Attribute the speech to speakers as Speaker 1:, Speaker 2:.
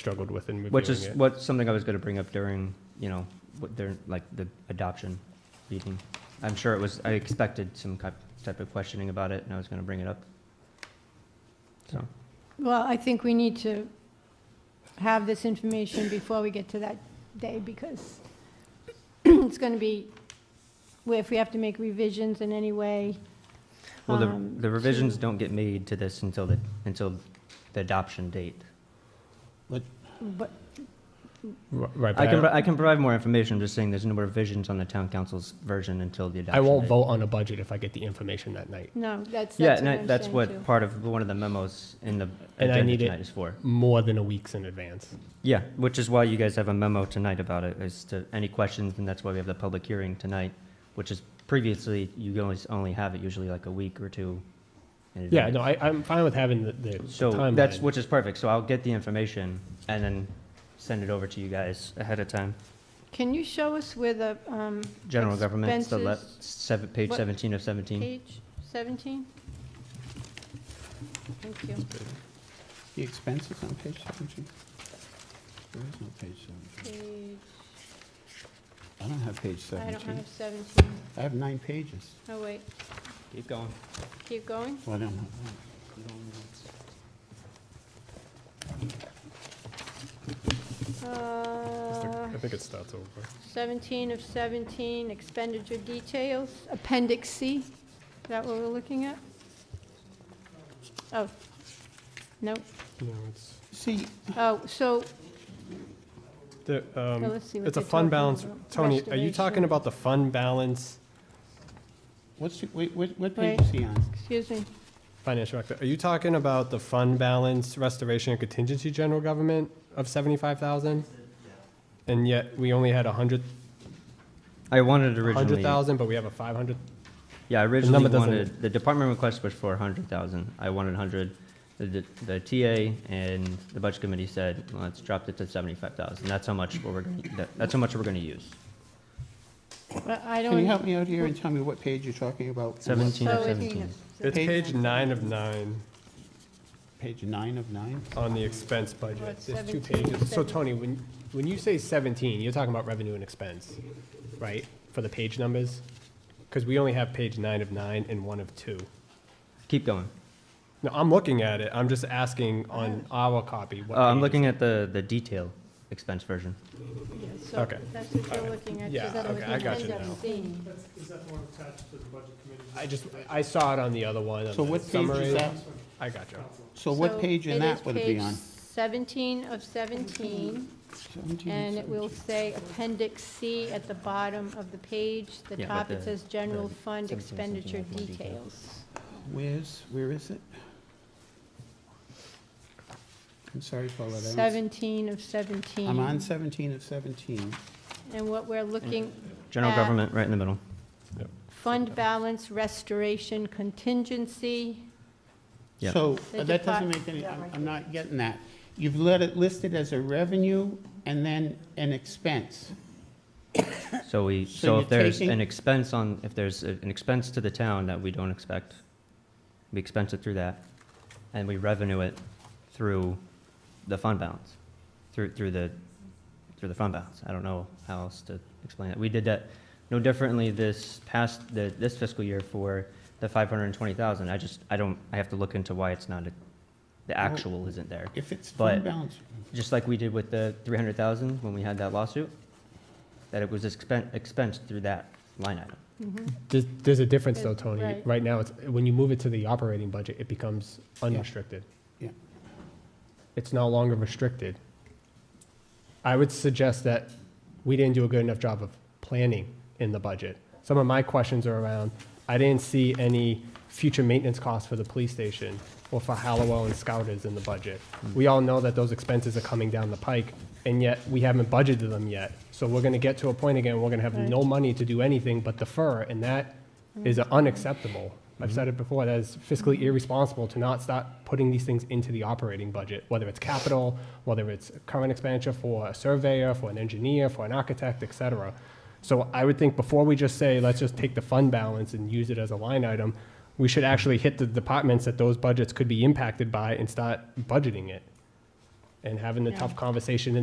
Speaker 1: struggled with in reviewing
Speaker 2: Which is
Speaker 1: it.
Speaker 2: what, something I was gonna bring up during, you know, what their, like, the adoption meeting. I'm sure it was, I expected some ki- type of questioning about it, and I was gonna bring it up. So,
Speaker 3: Well, I think we need to have this information before we get to that day, because it's going to be, where if we have to make revisions in any way.
Speaker 2: well, the
Speaker 3: um,
Speaker 2: the revisions
Speaker 3: to-
Speaker 2: don't get made to this until the, until the adoption date.
Speaker 3: But,
Speaker 1: R- Right,
Speaker 2: I
Speaker 1: but
Speaker 2: can,
Speaker 1: I,
Speaker 2: pro- I can provide more information, I'm just saying there's no revisions on the town council's version until the adoption
Speaker 1: I won't
Speaker 2: date.
Speaker 1: vote on a budget if I get the information that night.
Speaker 3: no, that's,
Speaker 2: Yeah,
Speaker 3: that's
Speaker 2: and
Speaker 3: what
Speaker 2: I-
Speaker 3: I'm
Speaker 2: that's
Speaker 3: saying, too.
Speaker 2: what part of, one of the memos in the
Speaker 1: I
Speaker 2: agenda
Speaker 1: need it-
Speaker 2: tonight is for.
Speaker 1: More than a week's in advance.
Speaker 2: Yeah, which is why you guys have a memo tonight about it, as to any questions, and that's why we have the public hearing tonight, which is previously, you always only have it usually like a week or two. in
Speaker 1: Yeah,
Speaker 2: advance.
Speaker 1: no, I, I'm fine with having the, the
Speaker 2: So
Speaker 1: timeline.
Speaker 2: that's, which is perfect, so I'll get the information and then send it over to you guys ahead of time.
Speaker 3: Can you show us where the, um,
Speaker 2: General government, it's the le-
Speaker 3: Expenses.
Speaker 2: seven, page
Speaker 3: What-
Speaker 2: seventeen of seventeen.
Speaker 3: page 17? Thank you.
Speaker 4: The expenses on page 17? There is no page 17.
Speaker 3: Page,
Speaker 4: I don't have page
Speaker 3: I don't
Speaker 4: 17.
Speaker 3: have 17.
Speaker 4: I have nine pages.
Speaker 3: Oh, wait,
Speaker 2: Keep going.
Speaker 3: keep going.
Speaker 4: Well, I don't have
Speaker 3: Uh,
Speaker 1: I think it starts over.
Speaker 3: 17 of 17, expenditure details, Appendix C, is that what we're looking at? Oh, no,
Speaker 1: No, it's,
Speaker 4: See,
Speaker 3: oh, so,
Speaker 1: the,
Speaker 3: now
Speaker 1: um,
Speaker 3: let's see what
Speaker 1: it's a
Speaker 3: they're
Speaker 1: fund
Speaker 3: talking
Speaker 1: balance.
Speaker 3: about.
Speaker 1: Tony, are you talking
Speaker 3: Restoration.
Speaker 1: about the fund balance,
Speaker 4: what's, wait, what, what
Speaker 3: Wait.
Speaker 4: page is he on?
Speaker 3: Excuse me,
Speaker 1: financial director, are you talking about the fund balance restoration and contingency general government of seventy-five thousand? And yet, we only had a hundred,
Speaker 2: I wanted
Speaker 1: hundred
Speaker 2: originally,
Speaker 1: thousand, but we have a five hundred,
Speaker 2: yeah, I originally
Speaker 1: doesn't-
Speaker 2: wanted, the department request was for a hundred thousand, I wanted hundred. The, the TA and the budget committee said, let's drop it to seventy-five thousand, that's how much we're, gonna- that- that's how much we're gonna use.
Speaker 3: but I don't.
Speaker 4: Can you help me out here and tell me what page you're talking about? and what-
Speaker 2: Seventeen
Speaker 3: So
Speaker 2: of
Speaker 3: we can-
Speaker 2: seventeen.
Speaker 1: it's
Speaker 4: Page-
Speaker 1: page nine of nine.
Speaker 4: Page nine of nine?
Speaker 1: on the expense
Speaker 3: Or
Speaker 1: budget,
Speaker 3: it's
Speaker 1: there's two
Speaker 3: 17,
Speaker 1: pages. So
Speaker 3: 17.
Speaker 1: Tony, when, when you say seventeen, you're talking about revenue and expense, right? For the page numbers? Because we only have page nine of nine and one of two.
Speaker 2: Keep going.
Speaker 1: No, I'm looking at it, I'm just asking on our copy. what
Speaker 2: Uh, I'm
Speaker 1: page
Speaker 2: looking
Speaker 1: it's-
Speaker 2: at the, the detail expense version.
Speaker 3: Yeah, so
Speaker 1: Okay.
Speaker 3: That's what you're looking at.
Speaker 1: Yeah,
Speaker 3: so that was
Speaker 1: okay, I got you
Speaker 3: Appendix
Speaker 1: now.
Speaker 3: C.
Speaker 5: That's, is that the one attached to the budget committee?
Speaker 1: I just, I saw it on the other one, on
Speaker 4: So
Speaker 1: the
Speaker 4: what page
Speaker 1: summary.
Speaker 4: is that?
Speaker 1: I got you.
Speaker 4: So what
Speaker 3: So
Speaker 4: page in
Speaker 3: it
Speaker 4: that
Speaker 3: is
Speaker 4: would it be
Speaker 3: page
Speaker 4: on?
Speaker 3: 17 of 17.
Speaker 4: 17
Speaker 3: And it will say Appendix C at the bottom of the page. The
Speaker 2: Yeah, but
Speaker 3: top,
Speaker 2: the-
Speaker 3: it says General
Speaker 2: the
Speaker 3: Fund
Speaker 2: 17 something
Speaker 3: Expenditure
Speaker 2: like more detail.
Speaker 3: Details.
Speaker 4: Where's, where is it? I'm sorry, Paula, I don't-
Speaker 3: 17 of 17.
Speaker 4: I'm on 17 of 17.
Speaker 3: And what we're looking,
Speaker 2: General
Speaker 3: Uh,
Speaker 2: government, right in the middle.
Speaker 3: fund balance restoration contingency.
Speaker 2: Yep.
Speaker 4: So
Speaker 3: They
Speaker 4: uh, that
Speaker 3: could
Speaker 4: doesn't
Speaker 3: fi-
Speaker 4: make any,
Speaker 3: yeah,
Speaker 4: I'm
Speaker 3: right
Speaker 4: I'm not getting that. You've let it listed as a revenue and then an expense.
Speaker 2: So we,
Speaker 4: So
Speaker 2: so
Speaker 4: you're
Speaker 2: if there's
Speaker 4: taking-
Speaker 2: an expense on, if there's a- an expense to the town that we don't expect, we expense it through that, and we revenue it through the fund balance, through, through the, through the fund balance. I don't know how else to explain it. We did that no differently this past, the, this fiscal year for the five hundred and twenty thousand. I just, I don't, I have to look into why it's not, a- the actual isn't there.
Speaker 4: If it's
Speaker 2: But-
Speaker 4: fund balance,
Speaker 2: Just like we did with the three hundred thousand when we had that lawsuit, that it was expen- expensed through that line item.
Speaker 1: There's, there's a difference though,
Speaker 3: though, Tony.
Speaker 1: Tony.
Speaker 3: Right.
Speaker 1: Right now, it's, when you move it to the operating budget, it becomes unrestricted.
Speaker 4: yeah.
Speaker 1: it's no longer restricted. I would suggest that we didn't do a good enough job of planning in the budget. Some of my questions are around, I didn't see any future maintenance costs for the police station or for Hallowell and Scouters in the budget. We all know that those expenses are coming down the pike, and yet we haven't budgeted them yet. So we're gonna get to a point again, we're gonna have no money to do anything but defer, and that is unacceptable. I've said it before, that is fiscally irresponsible to not start putting these things into the operating budget, whether it's capital, whether it's current expenditure for a surveyor, for an engineer, for an architect, et cetera. So I would think before we just say, let's just take the fund balance and use it as a line item, we should actually hit the departments that those budgets could be impacted by and start budgeting it. and having the
Speaker 3: Yeah.
Speaker 1: tough conversation in